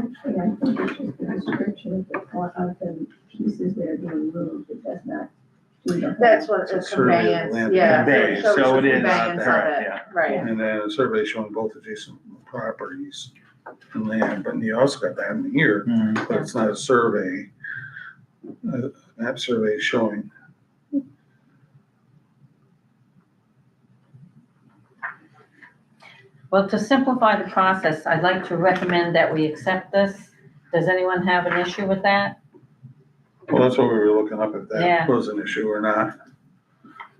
Actually, I think it's just the description of the, fo- of the pieces that are being moved, it does not do the. whole. That's what the It's a survey of conveyance, land. yeah. Conveyance, so it is not Conveyance of there, it, yeah. right. And then a survey showing both adjacent properties and land, but you also got that in here, Mm-hmm. but it's not a survey. Uh, Map survey showing, Well, to simplify the process, I'd like to recommend that we accept this. Does anyone have an issue with that? well, that's what we were looking up, if that Yeah. was an issue or not.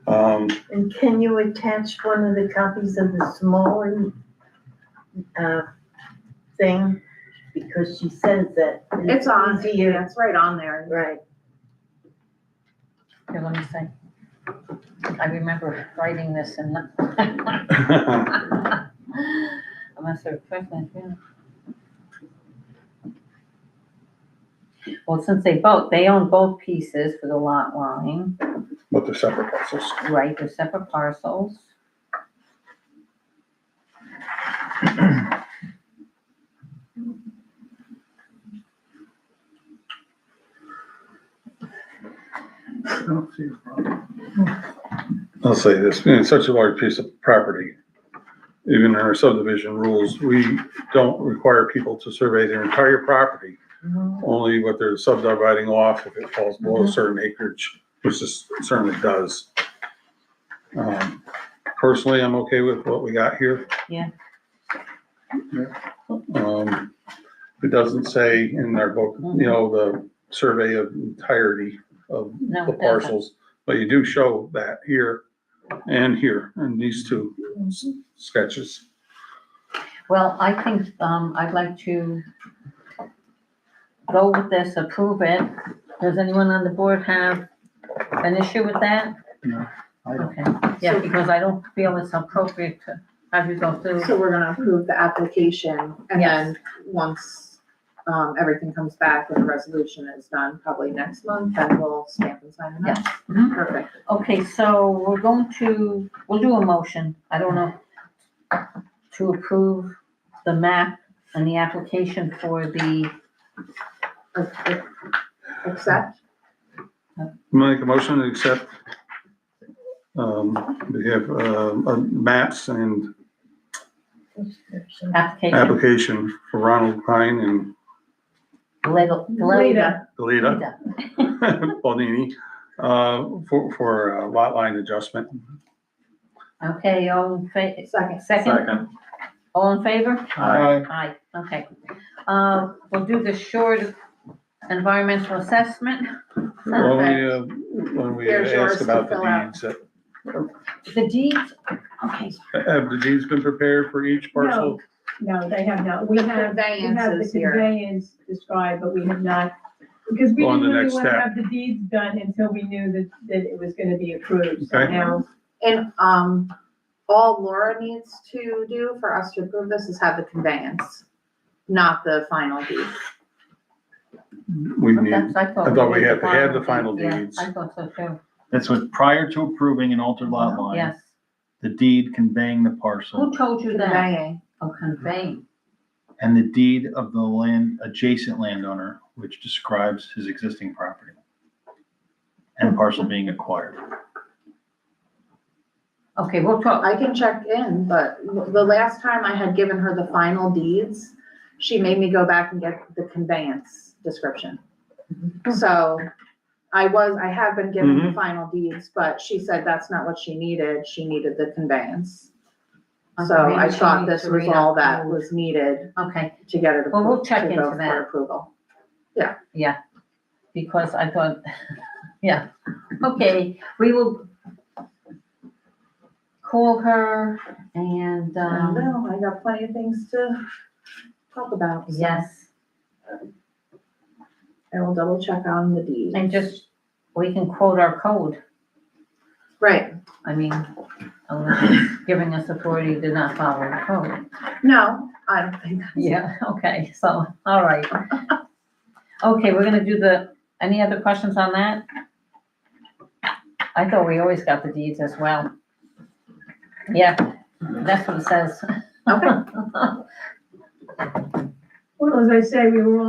Um, And can you attach one of the copies of the smaller, uh, thing? Because she says that. It's on, yeah, easier. it's right on there. Right, Here, let me see. I remember writing this and not. I must have requested, that, yeah. Well, since they both, they own both pieces for the lot line, but they're separate parcels. right, they're separate parcels. I don't see a problem. I'll say this, being such a large piece of property, even in our subdivision rules, we don't require people to survey their entire property. Mm-hmm. Only what they're subdividing off if it falls below a certain acreage, which this certainly does. Um, Personally, I'm okay with what we got here. Yeah. Um, It doesn't say in our book, you know, the survey of entirety of No, the it doesn't. parcels, but you do show that here and here in these two s- sketches. Well, I think, um, I'd like to go with this, approve it. Does anyone on the board have an issue with that? No, I don't. Okay, yeah, because I don't feel it's appropriate to have you go through. So we're gonna approve the application and then once, um, everything comes back and the resolution is done, probably next month, then we'll stamp and sign it up. Mm-hmm. Mhm. Perfect. Okay, so we're going to, we'll do a motion, I don't know, to approve the map and the application for the, Accept, Make a motion to accept. Um, we have, um, uh, maps and application. application for Ronald Pine and Leda- Leda. Galita Leda. Baldini, uh, for, for uh, lot line adjustment. Okay, all in fa- second. second, all in favor? Aye. Aye, okay. Uh, we'll do the short environmental assessment. When we, uh, when we There's yours ask to about the fill out. deeds, uh, The deeds, okay, have the deeds been prepared for each parcel? No, they have not, we The have, we have the conveyances here. conveyance described, but we have not, because we Go on didn't to the really next wanna step. have the deeds done until we knew that, that it was gonna be approved, so Okay. now. And, um, all Laura needs to do for us to approve this is have the conveyance, not the final deed. We need that's, I thought. I thought we did had to have the final yeah, deeds. I thought so too, That's what, prior to approving an altered lot line, yes. the deed conveying the parcel Who told you that? Conveying. Oh, conveying. and the deed of the land, adjacent landowner, which describes his existing property and parcel being acquired. Okay, we'll talk, I can check in, but the last time I had given her the final deeds, she made me go back and get the conveyance description. Mm-hmm. So I was, I have been given the final deeds, but she said that's not what she needed. She needed the conveyance. So Okay, maybe I she thought this needs to was all read out that the- was needed okay, to get it. Well, we'll appro- check to go into for that. Approval. because I thought, yeah, okay, we will call her and, I um, know, I got plenty of things to talk about. so yes, I will double check on the deed. and just, we can quote our code. Right. I mean, unless it's giving us authority to not follow the code. No, I don't think that's. Yeah, okay, so, all right. Okay, we're gonna do the, any other questions on that? I thought we always got the deeds as well. Yeah, that's what it says. Okay. Well, as I say, we were all